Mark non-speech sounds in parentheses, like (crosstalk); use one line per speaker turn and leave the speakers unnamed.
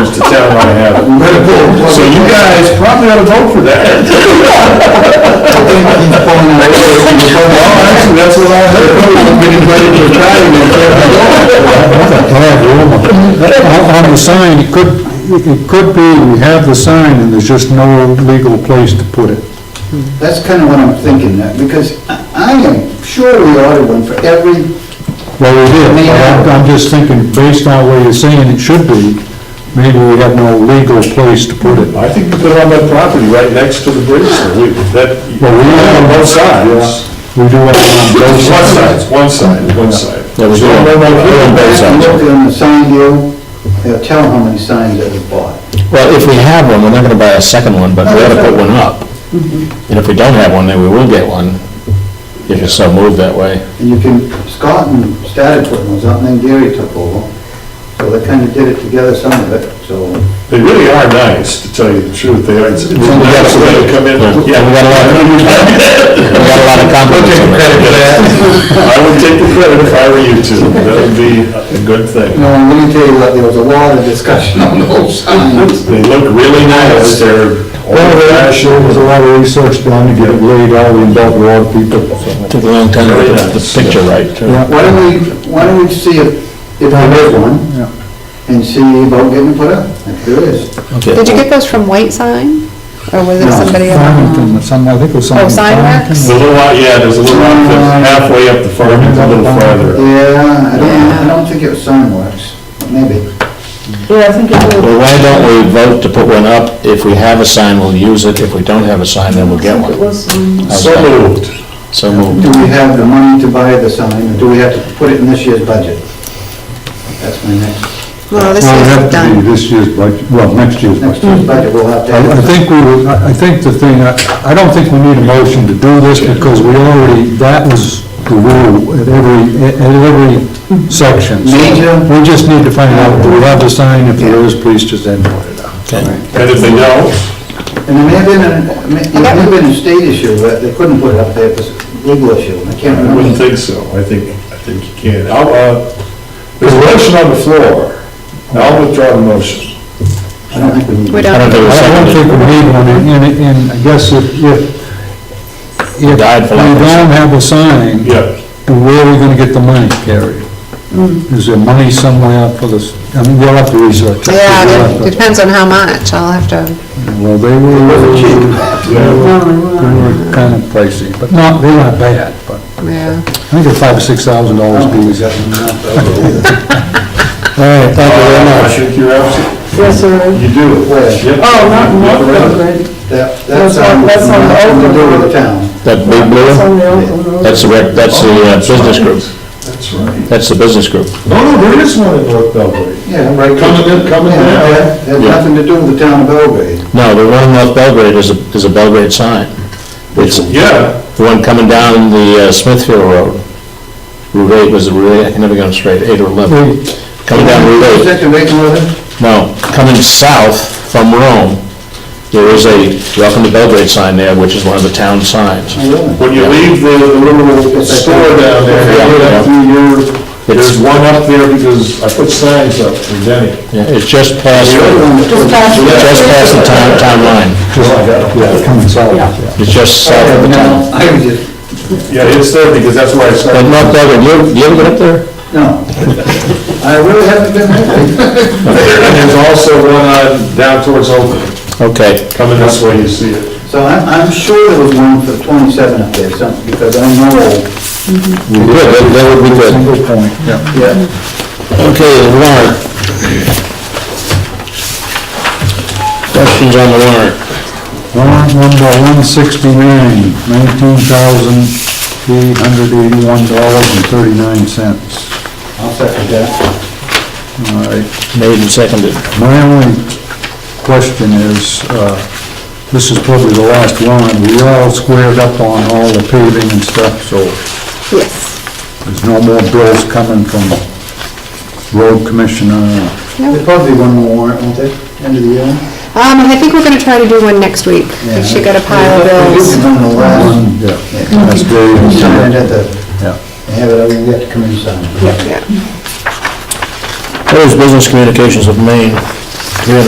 I don't wanna have it. So you guys probably ought to vote for that. Well, actually, that's what I heard, people have been invited to a trial, and they can't go.
On on the sign, it could, it could be, we have the sign and there's just no legal place to put it.
(laughs) That's kind of what I'm thinking, that- because I I am sure we ordered one for every,
Well, we did, but I'm- I'm just thinking, based on what you're saying, it should be, maybe we have no legal place to put it.
I think you put it on that property right next to the bridge, so we, that,
Well, we have
on both sides.
We do have it on both
It's one side,
sides.
it's one side, one side.
Yeah, we do.
No, no, no, no,
We're on both
you
sides.
look on the sign deal, they'll tell how many signs that were bought.
Well, if we have one, we're not gonna buy a second one, but we ought to put one up.
Mm-hmm.
And if we don't have one, then we will get one, if it's so moved that way.
And you can, Scott and started putting those up, and then Gary took over, so they kind of did it together, some of it, so.
They really are nice, to tell you the truth, they are, it's it's a nice way to come in.
Yeah, we got a lot
(laughs)
of- We got a lot of compliments on that.
I would take the credit if I were you two, that would be a good thing.
No, I'm going to tell you, what, there was a lot of discussion (laughs) on those signs.
They look really nice, they're
Well,
old
there actually
fashioned,
was a lot of research done to get it laid out and involve a lot of people.
Took a long time to get the- the picture right, too.
Why don't we, why don't we see if, if there is one, and see about getting it put up, if there is.
Okay.
Did you get those from White Sign? Or was it
No,
somebody else?
Farmington, some, I think it was
Oh,
something.
Signworks?
There's a little lot, yeah, there's a little lot that's halfway up the farm, it's a little farther.
Yeah, I don't, I
Yeah.
don't think it was Sunworks, maybe.
Yeah, I think it would.
Well, why don't we vote to put one up? If we have a sign, we'll use it. If we don't have a sign, then we'll get
It
one.
was, um,
How's
So
that?
moved.
So moved.
Do we have the money to buy the sign, or do we have to put it in this year's budget? That's my next,
Well, this
Well, it
is
had to be
done.
this year's budget, well, next year's budget.
next year's budget, we'll have to.
I I think we, would- I I think the thing, I I don't think we need a motion to do this because we already, that was the rule at every, at every section. So
Major-
We just need to find out, do we have the sign? If there is, please just then put it up.
Okay.
And if they don't,
And there may have been, an- may- it may have been a state issue, but they couldn't put it up there, it was a legal issue, I can't
I wouldn't
remember.
think so, I think, I think you can. I'll, uh, there's a motion on the floor, I'll withdraw the motion.
I don't think we need.
We
I don't
don't,
think it was
I don't think
seconded.
we need one, and- and, and I guess if, if, if we
Died for lack of-
don't have a sign,
Yeah,
then where are we gonna get the money, Carrie?
Hmm.
Is there money somewhere for this, I mean, you'll have to research. it. You'll
yeah,
have to-
it depends on how much. I'll have to,
Well, they were.
yeah,
no, it
They
was.
were kind of pricey, but not, they weren't bad, but
yeah.
I think they're five or six thousand dollars a piece.
(laughs)
All right, thank you very
Uh, I
much.
think you're absolutely,
Yes, sir.
you do. Yep.
Oh, not in
You're right.
Norfolk,
That,
That's
that's, um,
on- that's on the
nothing to do with the town.
That big
but
blue
it's on
one?
the Oakland Road.
That's the, rec- that's the uh, business group.
That's right.
That's the business group.
Oh, no, there is one in North Belgrade.
Yeah, right.
Coming in, coming in.
Yeah, yeah, Has
Yeah.
nothing to do with the town of Belgrade.
No, the one in North Belgrade is a, is a Belgrade sign. It's the
Yeah,
one coming down the uh, Smithfield Road. Route 8 was the Route 8, I can never go straight, 8 or 11. Coming down
Is
Route
that the right order?
8, no, coming south from Rome, there is a Welcome to Belgrade sign there, which is one of the town signs.
I don't know.
when you leave the, the little store down there, you go down through your, there's one up there because I put signs up for Denny.
Yeah, It's just past,
Just past-
just past the town, town line.
Yeah, coming south, yeah.
It's just south of the town.
No, I was just,
Yeah, it's there because that's where I
But
started.
North Belgrade, you ever- you ever get up there?
no. I really haven't been there.
And there's also one on, down towards Oakland,
Okay.
coming this way, you see it.
So I'm, I'm sure there was one for 27 up there, something, because I know,
Good, that- that would be good.
Single point, yeah.
yeah.
Okay, the warrant. Questions on the warrant?
Warrant number one sixty-nine, nineteen thousand eight hundred eighty-one dollars and thirty-nine cents.
I'll second that.
All right,
Made and seconded.
my only question is, uh, this is probably the last one, we all squared up on all the paving and stuff, so
Yes.
There's no more bills coming from road commissioner.
There's probably one more warrant, won't there, end of the year?
Um, I think we're gonna try to do one next week. She got a pile of
We
bills.
did one the last,
Yeah, That's very,
we signed
yeah.
at the, have it, we got to come and sign.
Yeah.
Those business communications of Maine, three hundred